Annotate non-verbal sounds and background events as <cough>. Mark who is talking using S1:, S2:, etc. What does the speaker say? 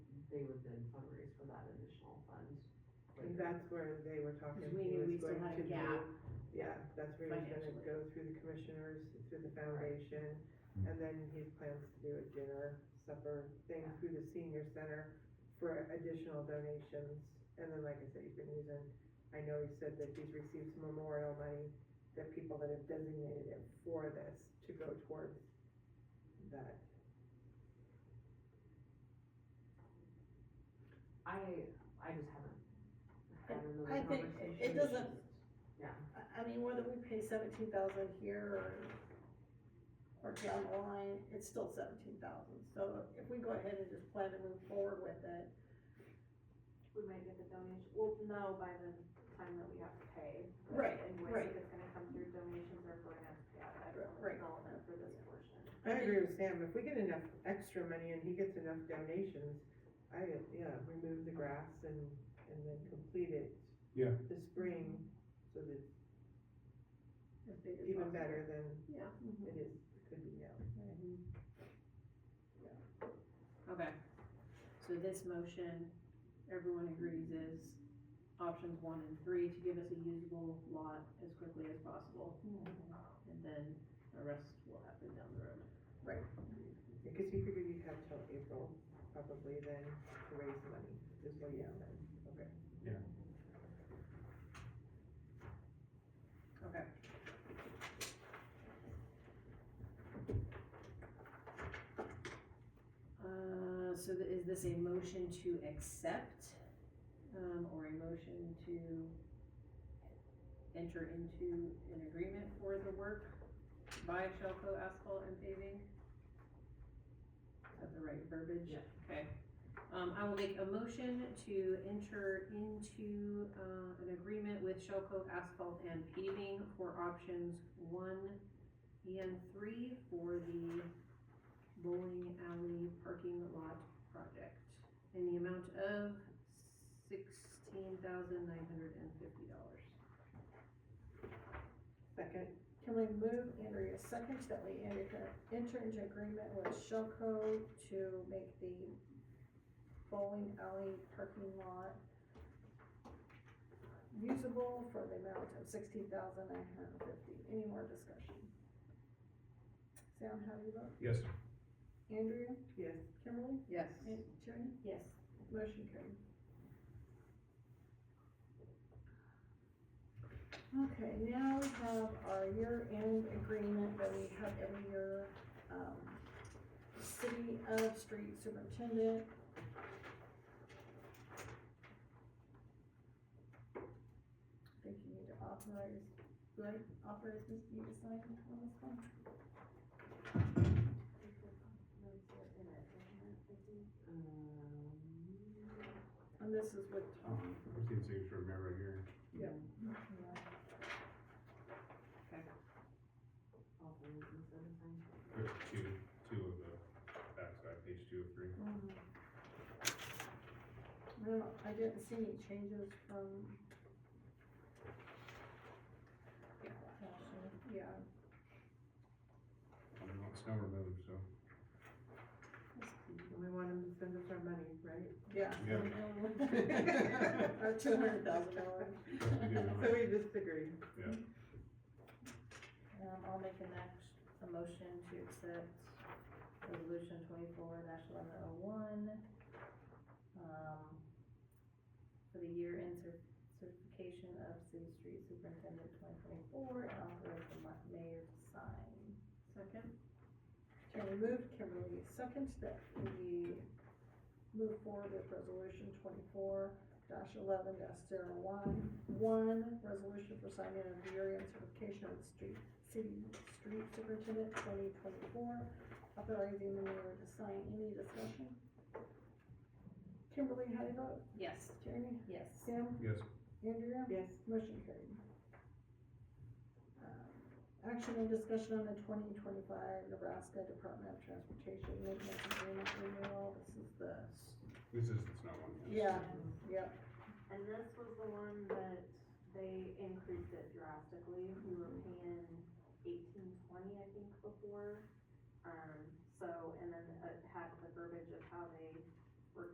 S1: they would then fundraise for that additional fund.
S2: And that's where they were talking,
S1: Because we
S2: he
S1: knew we
S2: was
S1: still
S2: going
S1: had
S2: to
S1: a
S2: do,
S1: gap
S2: yeah, that's where he's gonna
S1: financially.
S2: go through the commissioners, through the foundation. And then he plans to do a dinner, supper thing
S1: Yeah.
S2: through the senior center for additional donations. And then, like I said, he's been using, I know he said that he's received some memorial money, that people that have designated it for this to go towards that.
S1: I, I just haven't. had another
S3: I think it- it
S1: conversation.
S3: doesn't-
S1: Yeah,
S3: I, I mean, whether we pay seventeen thousand here or, or down the line, it's still seventeen thousand, so if we go ahead and just plan to move forward with it,
S4: we might get the donation, we'll know by the time that we have to pay.
S3: Right,
S4: And
S3: right.
S4: if it's gonna come through donations or grants, yeah, that's
S3: Right.
S4: relevant for this portion.
S2: I agree with Sam, if we get enough extra money and he gets enough donations, I, yeah, remove the grass and, and then complete it.
S5: Yeah.
S2: This spring, so that it's
S3: if they.
S2: even better than
S3: Yeah.
S2: it is, could be now.
S6: Okay, so this motion, everyone agrees is options one and three to give us a usable lot as quickly as possible.
S3: Mm-hmm.
S6: And then the rest will happen down the road.
S2: Because you figured you'd have till April, probably then, to raise money, this way yeah, then, okay.
S6: Okay. Uh, so th- is this a motion to accept, um, or a motion to enter into an agreement for the work by Shelco Asphalt and Paving? Is that the right verbiage?
S1: Yeah.
S6: Okay. Um, I will make a motion to enter into, uh, an agreement with Shelco Asphalt and Paving for options one and three for the bowling alley parking lot project in the amount of sixteen thousand nine hundred and fifty dollars.
S2: Second,
S3: Can we move Andrea second that we enter, enter into agreement with Shellco to make the bowling alley parking lot usable for the amount of sixteen thousand nine hundred and fifty? Any more discussion? Sam, how do you vote?
S5: Yes.
S3: Andrea?
S2: yes,
S3: Kimberly?
S6: Yes.
S3: And Jane?
S4: Yes.
S3: Motion carried. Okay, now we have our year-end agreement that we have every year, um, City of Street Superintendent. I think you need to authorize, would authorize Ms. B to sign on this one?
S1: um,
S3: And this is with Tom.
S5: I'm seeing signature of Mayor right here.
S1: all things and seven times.
S5: There's two, two of the backside, page two of three.
S3: Mm. No, I didn't see any changes from. Yeah,
S6: <laughs>
S5: I don't know, it's now removed, so. <laughs>
S2: and we want him to send us our money, right?
S3: yeah.
S5: Yeah.
S3: Or two hundred thousand dollars.
S5: That's what we do now.
S2: <laughs> So we just agreed,
S6: Um, I'll make an act, a motion to accept resolution twenty-four dash eleven oh one, um, for the year-end cer- certification of city street superintendent twenty twenty-four, and authorize the ma- mayor to sign. Second?
S3: Can we move, Kimberly, second that we move forward with resolution twenty-four dash eleven dash zero one, one, resolution for signing of the area certification of street, city street superintendent twenty twenty-four, authorizing the mayor to sign any discussion. Kimberly, how do you vote?
S6: Yes.
S3: Jeremy?
S6: Yes.
S3: Sam?
S5: Yes,
S3: Andrea?
S2: yes,
S3: Motion carried. Um, Action and discussion on the twenty twenty-five Nebraska Department of Transportation Maintenance Agreement renewal. This is the,
S5: this is, it's not one.
S3: yeah, yep.
S4: And this was the one that they increased it drastically, we were paying eighteen twenty, I think, before. Um, so, and then it had the verbiage of how they